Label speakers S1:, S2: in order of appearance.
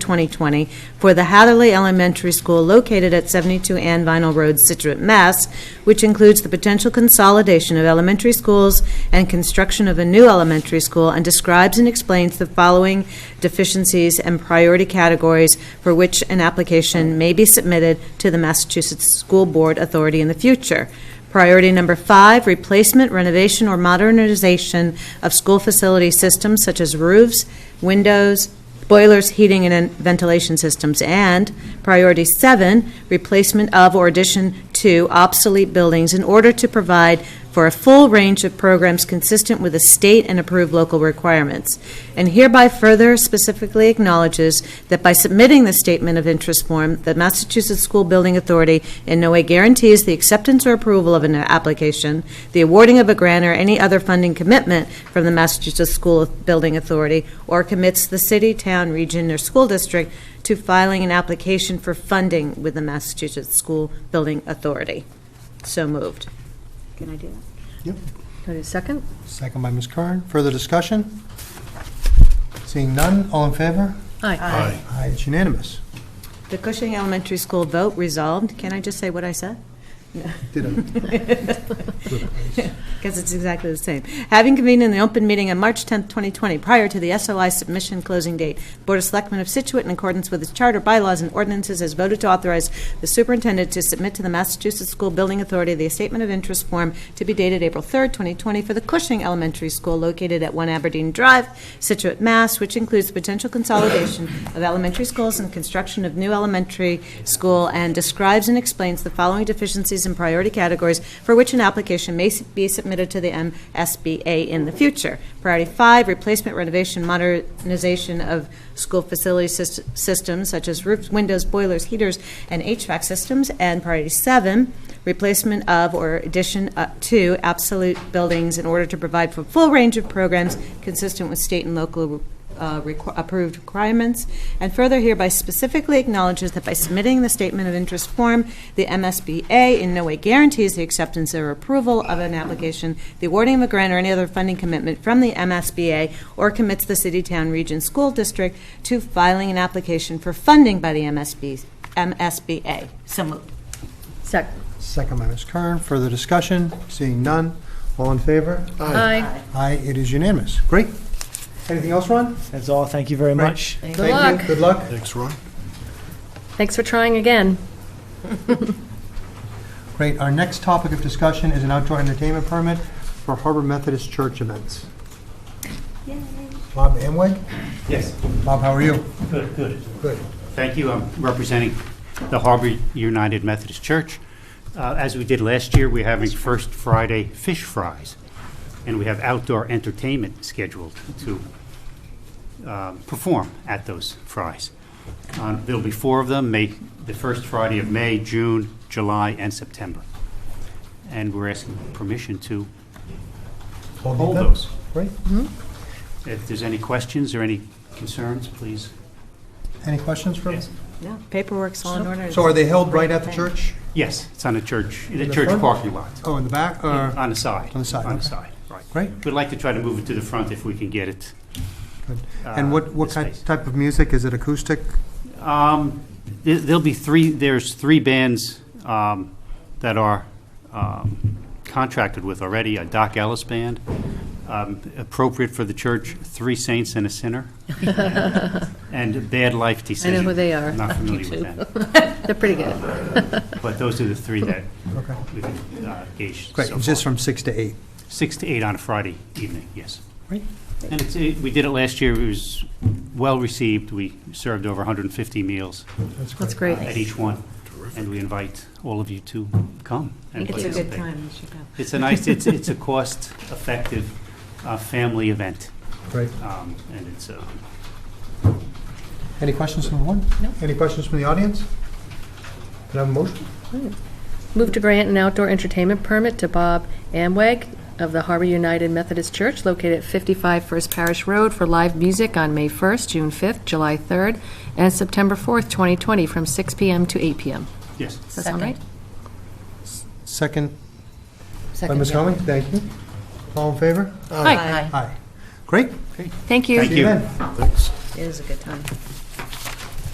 S1: 2020, for the Hatherley Elementary School located at 72 Ann Vinyl Road, Situate, Mass., which includes the potential consolidation of elementary schools and construction of a new elementary school, and describes and explains the following deficiencies and priority categories for which an application may be submitted to the Massachusetts School Board Authority in the future. Priority number five, replacement, renovation, or modernization of school facility systems such as roofs, windows, boilers, heating, and ventilation systems. And priority seven, replacement of or addition to obsolete buildings in order to provide for a full range of programs consistent with the state and approved local requirements. And hereby further specifically acknowledges that by submitting the statement of interest form, the Massachusetts School Building Authority in no way guarantees the acceptance or approval of an application, the awarding of a grant or any other funding commitment from the Massachusetts School Building Authority, or commits the city, town, region, or school district to filing an application for funding with the Massachusetts School Building Authority. So moved.
S2: Can I do that?
S3: Yep.
S2: Can I do a second?
S3: Second by Ms. Curran. Further discussion? Seeing none, all in favor?
S2: Aye.
S3: Aye, it's unanimous.
S1: The Cushing Elementary School vote resolved. Can I just say what I said?
S3: Did it.
S1: Because it's exactly the same. Having convened in the open meeting on March 10th, 2020, prior to the SOI submission closing date, Board of Selectmen of Situate, in accordance with its charter, bylaws, and ordinances, has voted to authorize the superintendent to submit to the Massachusetts School Building Authority the statement of interest form to be dated April 3rd, 2020, for the Cushing Elementary School located at 1 Aberdeen Drive, Situate, Mass., which includes potential consolidation of elementary schools and construction of new elementary school, and describes and explains the following deficiencies and priority categories for which an application may s- be submitted to the MSBA in the future. Priority five, replacement, renovation, modernization of school facility sys- systems such as roofs, windows, boilers, heaters, and HVAC systems. And priority seven, replacement of or addition uh, to absolute buildings in order to provide for a full range of programs consistent with state and local uh, requ- approved requirements, and further hereby specifically acknowledges that by submitting the statement of interest form, the MSBA in no way guarantees the acceptance or approval of an application, the awarding of a grant, or any other funding commitment from the MSBA, or commits the city, town, region, school district to filing an application for funding by the MSB MSBA. So moved.
S2: Second.
S3: Second by Ms. Curran. Further discussion? Seeing none, all in favor?
S2: Aye.
S3: Aye, it is unanimous. Great. Anything else, Ron?
S4: That's all. Thank you very
S3: Great.
S4: much.
S2: Good
S3: Thank you.
S2: luck.
S3: Good luck.
S5: Thanks, Ron.
S2: Thanks for trying again.
S3: Great. Our next topic of discussion is an outdoor entertainment permit for Harbor Methodist Church events. Bob Amway?
S6: Yes,
S3: Bob, how are you?
S6: good, good.
S3: Good.
S6: Thank you. I'm representing the Harbor United Methodist Church. Uh, As we did last year, we're having First Friday fish fries, and we have outdoor entertainment scheduled to um, perform at those fries. Um, There'll be four of them, May, the first Friday of May, June, July, and September. And we're asking permission to hold
S3: them.
S6: those.
S3: Great.
S6: If there's any questions or any concerns, please.
S3: Any questions for us?
S1: No, paperwork's all in order.
S3: So are they held right at the church?
S6: Yes, it's on the church, the
S3: the
S6: church
S3: front?
S6: parking lot.
S3: Oh, in the back, or?
S6: On the side.
S3: On the side,
S6: On the
S3: okay.
S6: side, right.
S3: Great.
S6: We'd like to try to move it to the front if we can get it.
S3: Good. And what, what
S6: uh, the
S3: kind,
S6: space.
S3: type of music? Is it acoustic?
S6: Um, there- There'll be three, there's three bands um, that are um, contracted with already, a Doc Ellis Band, um, appropriate for the church, Three Saints and a Sinner, and Bad Life Decision.
S2: who they are.
S6: Not familiar with them.
S2: They're pretty good.
S6: But those are the three that
S3: Okay.
S6: we've uh, gauged
S3: Great,
S6: so
S3: it's just
S6: far.
S3: from six to eight.
S6: Six to eight on a Friday evening, yes.
S3: Great.
S6: And it's, it- we did it last year, it was well-received, we served over 150 meals
S2: That's great.
S6: at each one, and we invite all of you to come and
S2: It's a
S6: participate.
S2: good time. You should go.
S6: It's a nice, it's, it's a cost-effective uh, family event,
S3: Great.
S6: um, and it's, uh,
S3: Any questions from one? No. Any questions from the audience? Can I have a motion?
S2: Move to grant an outdoor entertainment permit to Bob Amweg of the Harbor United Methodist Church located at 55 First Parish Road for live music on May 1st, June 5th, July 3rd, and September 4th, 2020, from 6 PM to 8 PM.
S6: yes.
S2: Does that sound right?
S3: Second by
S2: Second.
S3: Ms. Conley, thank you. All in favor?
S2: Aye.
S3: Aye. Great.
S2: Thank you.
S6: Thank
S3: See
S6: you.
S3: then.
S1: It is a good time.